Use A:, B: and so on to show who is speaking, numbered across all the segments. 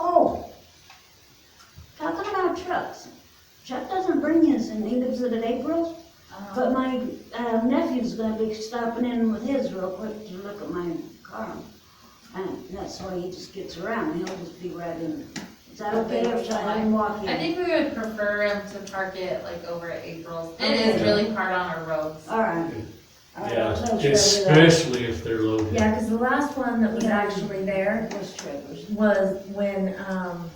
A: Oh, visit in April, but my uh, nephew's gonna be stopping in with his real quick to look at my car. And that's why he just gets around, he'll just be right in. Is that okay, or should I let him walk
B: I
A: in?
B: think we would prefer him to park it like over at April's. It is
A: Okay.
B: really hard on our roads.
A: All right. All right,
C: Yeah,
A: so Trevor's-
C: especially if they're loaded.
D: Yeah, because the last one that was actually there
A: Where's Trevor's?
D: was when, um,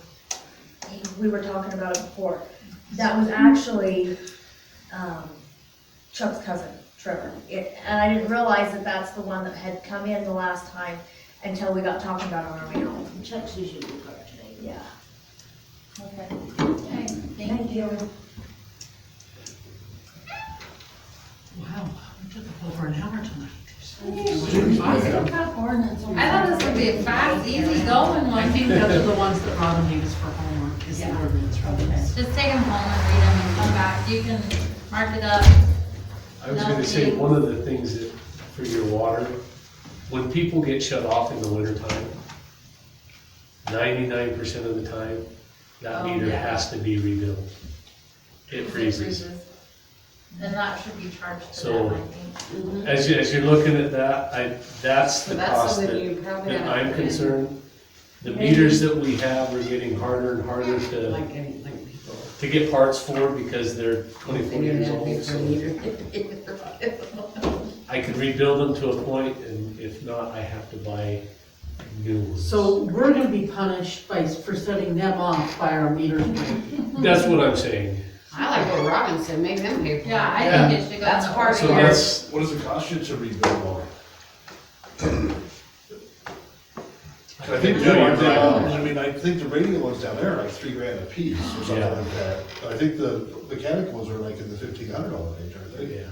D: we were talking about it before. That was actually, um, Chuck's cousin, Trevor. It, and I didn't realize that that's the one that had come in the last time until we got talking about it on our way home.
A: Chuck's usually parked today.
D: Yeah.
B: Okay. Okay, thank you.
E: Wow, we took up over an hour tonight.
B: I thought this would be a fast, easy going
E: I
B: one.
E: think those are the ones that Robin needs for homework, is the
B: Yeah.
E: ordinance, Robin.
B: Just take them home and read them and come back. You can mark it up.
C: I was gonna say, one of the things that, for your water, when people get shut off in the wintertime, ninety-nine percent of the time, that
B: Oh,
C: meter
B: yeah.
C: has to be rebuilt. It freezes.
B: Then that should be charged to
C: So-
B: them, I think.
C: As you, as you're looking at that, I, that's the
F: Mm-hmm. That's
C: cost
F: something
C: that,
F: you probably.
C: that
F: have
C: I'm
F: to put in.
C: concerned. The meters that we have are getting harder and harder to,
E: Like, any- like people.
C: to get parts for because they're twenty-four years old, so. I could rebuild them to a point, and if not, I have to buy new ones.
E: So we're gonna be punished by, for setting them off by our meter.
C: That's what I'm saying.
F: I like what Robin said, make them pay for it.
B: Yeah, I think it should go.
F: That's
B: in the
F: part
C: So
F: of
B: order.
F: your-
C: that's,
G: What does it cost you to rebuild one? I think,
C: Yeah, you're right.
G: I mean, I think the radio ones down there are like three grand a piece or something
C: Yeah.
G: like that. I think the mechanic ones are like in the fifteen hundred dollar range, aren't they?
C: yeah.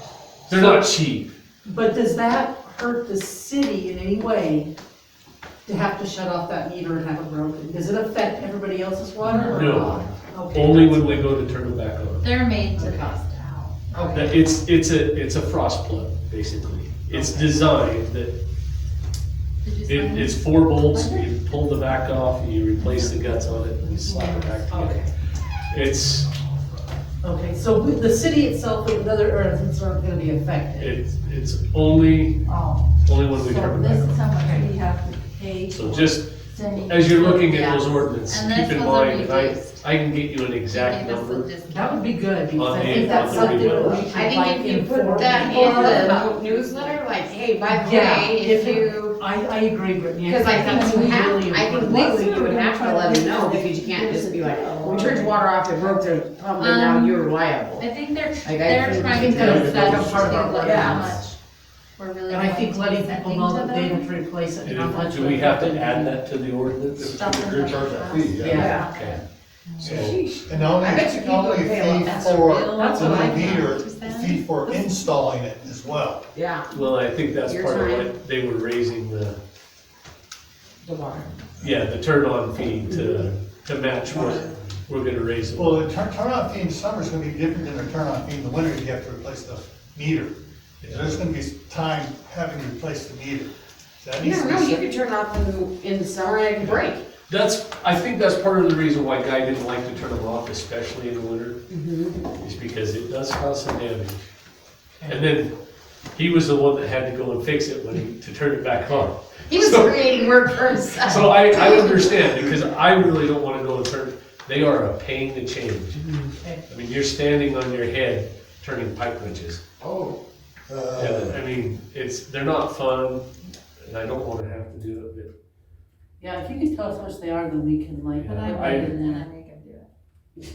H: Oh.
C: They're not cheap.
E: But does that hurt the city in any way to have to shut off that meter and have it broken? Does it affect everybody else's water or
C: No.
E: not? Okay,
C: Only
E: that's-
C: when we go to turn them back on.
B: They're made to cost out.
C: That- It's, it's a, it's a frost plug, basically. It's designed that
B: Did you
C: it,
B: sign
C: it's four bolts, you pull the back off, you replace the guts on it, and you slap it back together.
E: Okay,
C: It's,
E: okay, so with the city itself, and other ordinances aren't gonna be affected?
C: it's, it's only,
H: Oh,
C: only when we
H: so
C: turn them
H: this
C: back
H: is how much we have to pay
C: on.
H: for
C: So just
H: sending.
C: As you're looking at
B: Yeah.
C: those ordinances,
B: And
C: keep
B: this
C: in
B: was a
C: mind, if I,
B: reduced.
C: I can get you an
B: They
C: exact
B: gave us a
C: number.
B: discount.
E: That would be good, because I
C: On
E: think
C: the-
E: that's
C: on the
E: something that we
C: rebuild.
E: should
F: I
E: like
F: think if you put
E: inform
F: that
E: people
F: in
E: about.
F: the newsletter, like, hey, by the
E: Yeah,
F: way, if you,
E: I, I agree, Brittany.
F: because I
E: that's
F: think you have,
E: really
F: I think
E: important.
F: legally you would have to let them know, because you can't just be like, we turned water off, it broke their pump, and now
B: Um,
F: you're liable.
B: I think they're,
F: I
B: they're
F: think
B: trying
E: that
B: to
E: is
B: set
E: a part of our
B: to like how much
E: ordinance.
B: we're really.
E: And I
B: going
E: think
B: to be
E: letting people
B: sending
E: know
B: to
E: that they
B: them.
E: have to replace it, and how
C: And
E: much.
C: do we have to add that to the ordinance?
B: Stuff
G: You're gonna charge that fee, yeah.
E: Yeah.
C: Okay. So,
F: Sheesh.
I: And only,
F: I bet you people
I: only
F: pay a lot
I: fee
F: less
I: for,
F: bill.
E: That's
I: for
E: what
I: the
E: I
I: meter, the
B: percent.
I: fee for installing it as well.
F: Yeah,
C: well, I think that's
F: Your
C: part of
F: time.
C: what they were raising the,
F: the water.
C: yeah, the turn-on fee to, to match what we're gonna raise. it.
I: Well, the turn, turn on fee in summer is gonna be different than the turn on fee in the winter, you have to replace the meter. There's gonna be time having to replace the meter. So that
F: You
I: needs to
F: don't
I: be
F: know, you
I: set-
F: could turn off in, in the summer and it could break.
C: That's, I think that's part of the reason why Guy didn't like to turn them off, especially in the winter,
F: Mm-hmm.
C: is because it does cause some damage. And then, he was the one that had to go and fix it when he, to turn it back on.
F: He was
C: So-
F: creating work for himself.
C: So I, I understand, because I really don't wanna go and turn, they are a pain to change.
F: Mm-hmm.
C: I mean, you're standing on your head turning pipe wrenches.
G: Oh.
C: And, I mean, it's, they're not fun, and I don't wanna have to do it,
E: Yeah, if you can tell us how much they are, then we can like.
C: Yeah,
E: put
C: I-
E: it in
B: And
E: there.
B: I make them do it.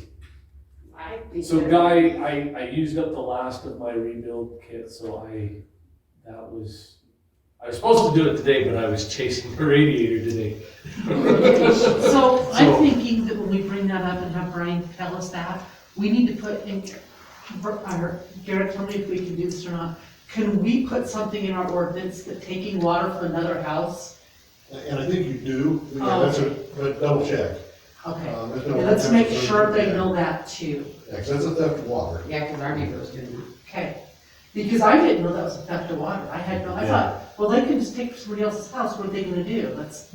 F: I-
C: but. So Guy, I, I used up the last of my rebuild kit, so I, that was, I was supposed to do it today, but I was chasing the radiator today.
E: So I'm
C: So-
E: thinking that when we bring that up and have Brian tell us that, we need to put in, or Garrett, tell me if we can do this or not. Can we put something in our ordinance that taking water from another house?
G: And I think you do, yeah, that's a, but double check.
E: Okay,
G: Um, there's no-
E: And let's make sure they know that too,
G: Yeah, 'cause that's a theft of water.
F: Yeah, because our neighbor was doing that.
E: okay? Because I didn't know that was a theft of water, I had no, I thought, well, they can just take somebody else's house, what are they gonna do? That's